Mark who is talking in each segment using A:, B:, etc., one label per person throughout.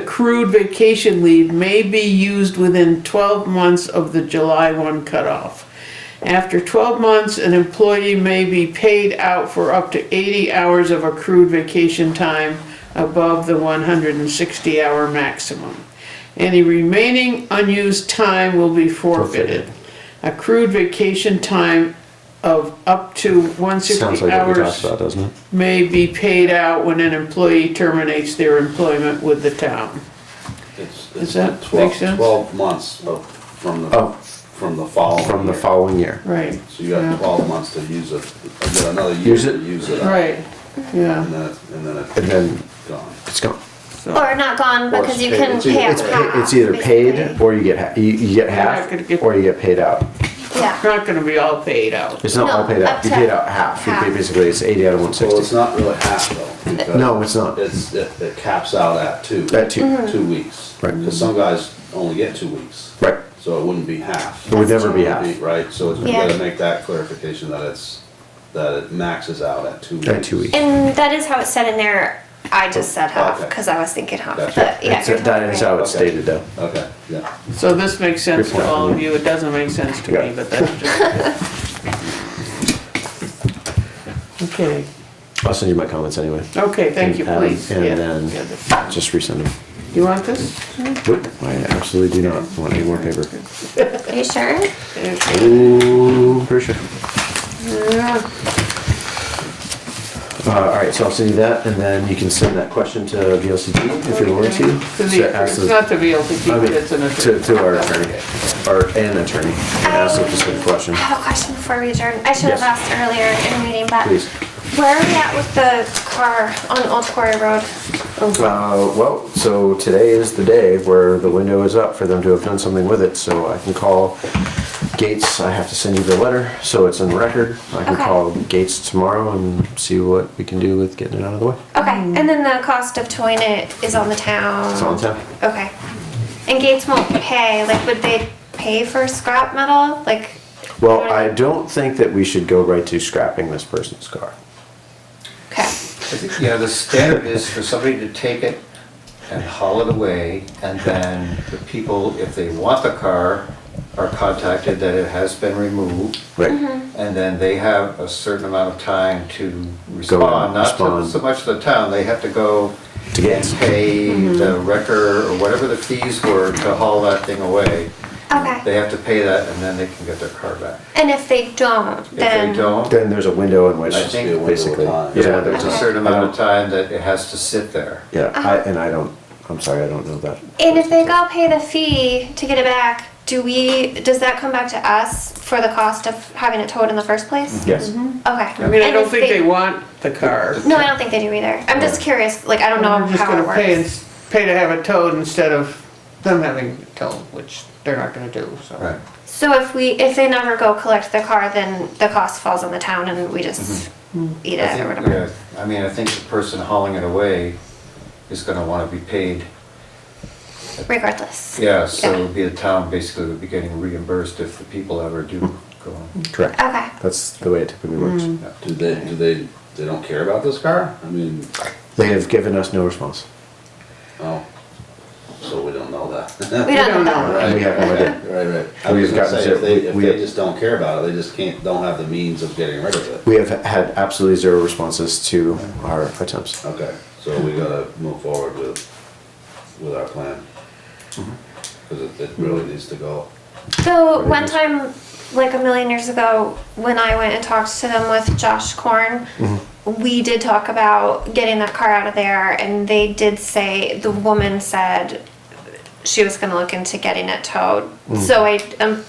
A: accrued vacation leave may be used within twelve months of the July one cutoff. After twelve months, an employee may be paid out for up to eighty hours of accrued vacation time above the one hundred and sixty hour maximum. Any remaining unused time will be forfeited. Accrued vacation time of up to one
B: Sounds
A: sixty
B: like what we
A: hours
B: talked about, doesn't it?
A: may be paid out when an employee terminates their employment with the town.
C: It's,
A: Does
C: it's
A: that make
C: twelve,
A: sense?
C: twelve months of, from the,
B: Oh.
C: from the following.
B: From the
C: year.
B: following year.
A: Right,
C: So you got
A: Yeah.
C: twelve months to use it, you got another year
B: Use it.
C: to use it, up,
A: right, yeah.
C: and then, it- and then it's
B: And then
C: gone.
B: it's gone.
A: So
D: Or not gone
B: Or
D: because you
B: it's paid.
D: can
B: It's either-
D: pay out
B: it's pa-
D: half.
B: It's either paid
D: basically.
B: or you get, ha- you, you get
A: not gonna
B: half,
A: get-
B: or you get paid out.
A: it's
D: Yeah,
A: not gonna be all paid out.
B: It's not all
D: No,
B: paid
D: up
B: out, you
D: to
B: paid out half, you pay
D: half.
B: basically, it's eighty out of one
C: Well, it's
B: sixty.
C: not really half though. because
B: No, it's not.
C: It's, it, it caps out at two.
B: At two.
A: Hmm.
D: Mm-hmm.
B: Mhm.
C: Two weeks.
B: Right.
C: Because some guys only get two weeks.
B: Right,
C: So it wouldn't be half.
B: it would never be
C: It would
B: half,
C: be- Right, so it's, we
D: Yeah.
C: gotta make that clarification that it's, that it maxes out at two weeks.
B: at two weeks.
D: and that is how it's said in there. I just said half
C: Okay.
D: because I was thinking half,
C: Gotcha.
D: but yeah.
B: It's-
D: you're
B: That
D: totally
B: is
D: right.
B: how it's
C: Okay.
B: stated though.
C: Okay, yeah.
A: So this makes sense
B: Good
A: to
B: point.
A: all of you, it doesn't make sense to
B: Yeah.
A: me, but that's just. Okay,
B: I'll send you my comments anyway.
A: okay, thank you,
B: And, um,
A: please.
B: and
A: Yeah,
B: then-
A: yeah, the-
B: Just resend them.
A: You want this?
D: Mm-hmm.
B: Nope, I absolutely do not want any more paper.
D: Are you sure?
A: Yeah.
B: Ooh, pretty sure. Uh, all right, so I'll send you that, and then you can send that question to VLCT if you're willing to.
A: To
B: So
A: the,
B: ask
A: it's
B: the-
A: not to be able to
B: I
A: keep
B: mean,
A: it, it's an
B: To,
A: attorney.
B: to our attorney, or an attorney, and ask a specific question, Uh,
D: I have a question before we adjourn. I should
B: Yes.
D: have asked earlier in the meeting, but
B: please.
D: where are we at with the car on Old Quarry Road?
B: Uh, well, so today is the day where the window is up for them to have done something with it, so I can call Gates, I have to send you the letter, so it's in record. I can
D: Okay.
B: call Gates tomorrow and see what we can do with getting it out of the way.
D: Okay, and then the cost of towing it is on the town.
B: It's on town.
D: Okay, and Gates won't pay. Like, would they pay for scrap metal? Like,
B: Well, I don't think that we should go right to scrapping this person's car.
D: okay.
E: I think, Yeah, the standard is for somebody to take it and haul it away, and then the people, if they want the car, are contacted that it has been removed,
B: Right,
E: and then they have a certain amount of time to respond. Not to-
B: respond.
E: so much the town, they have to go
B: To get-
E: and pay the wrecker or whatever the fees were to haul that thing away.
D: Okay.
E: They have to pay that, and then they can get their car back.
D: And if they don't,
E: If
D: then
E: they don't,
B: then there's a window in which,
E: I think-
C: Be a window of
B: basically.
C: time.
B: there's a
E: yeah,
B: window
E: there's
B: of
E: a
B: time.
E: certain amount of time that it has to sit there.
B: Yeah, I, and I don't, I'm sorry, I don't know that.
D: Uh-huh. and if they go pay the fee to get it back, do we? Does that come back to us for the cost of having it towed in the first place?
B: Yes.
E: Mm-hmm.
D: Okay. I
A: I mean, I don't think they want the car.
D: No, I don't think they do either. I'm just curious. Like, I don't know
A: We're just
D: how it
A: gonna pay, and
D: works.
A: s- pay to have it towed instead of them having it towed, which they're not gonna do, so.
E: Right.
D: So if we, if they never go collect the car, then the cost falls on the town, and we just
A: Mm-hmm.
D: eat
E: I
D: it or
E: think,
D: whatever.
E: Mm-hmm. yeah, I mean, I think the person hauling it away is gonna wanna be paid.
D: Regardless.
E: Yeah, so
D: Yeah.
E: it would be the town basically would be getting reimbursed if the people ever do go on.
B: Correct.
D: Okay.
B: That's the way it typically works.
D: Mm.
C: Do they, do they, they don't care about this car? I mean,
B: They have given us no response.
C: oh, so we don't know that.
D: We don't, know. that.
C: Right.
B: We have no idea.
C: Right, right. I
B: We've
C: was gonna
B: gotten
C: say, if
B: to-
C: they,
B: we-
C: if
B: we-
C: they just don't care about it, they just can't, don't have the means of getting rid of it.
B: We have had absolutely zero responses to our attempts.
C: Okay, so we gotta move forward with, with our plan. Cause it, it really needs to go.
D: So one time, like a million years ago, when I went and talked to them with Josh Korn,
B: Mm-hmm.
D: we did talk about getting that car out of there, and they did say the woman said she was going to look into getting it towed.
B: Mm.
D: So I am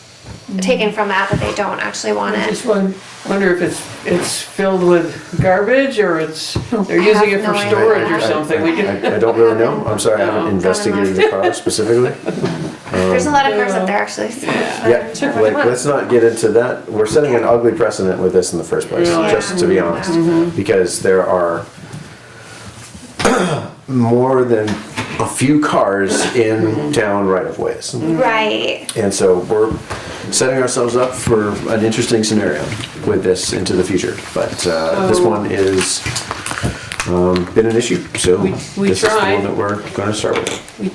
D: taken from that that they don't actually want
A: I
D: it.
A: just won- wonder if it's, it's filled with garbage, or it's, they're using it for
D: I have no
A: storage or
D: idea.
A: something, we didn't.
B: I, I don't really know. I'm sorry, I
A: No.
B: haven't investigated the car specifically.
D: There's a lot of cars
A: Yeah.
D: up there actually. So
B: Yeah, like, let's not get into that. We're setting an ugly precedent with this in the first place,
A: Yeah.
B: just to be honest. Because there are more than a few cars in town right of ways.
D: Right.
B: And so we're setting ourselves up for an interesting scenario with this into the future. But uh,
A: Oh.
B: this one is, um, been an issue, so
A: We- we
B: this is the one
A: tried.
B: that we're gonna start with.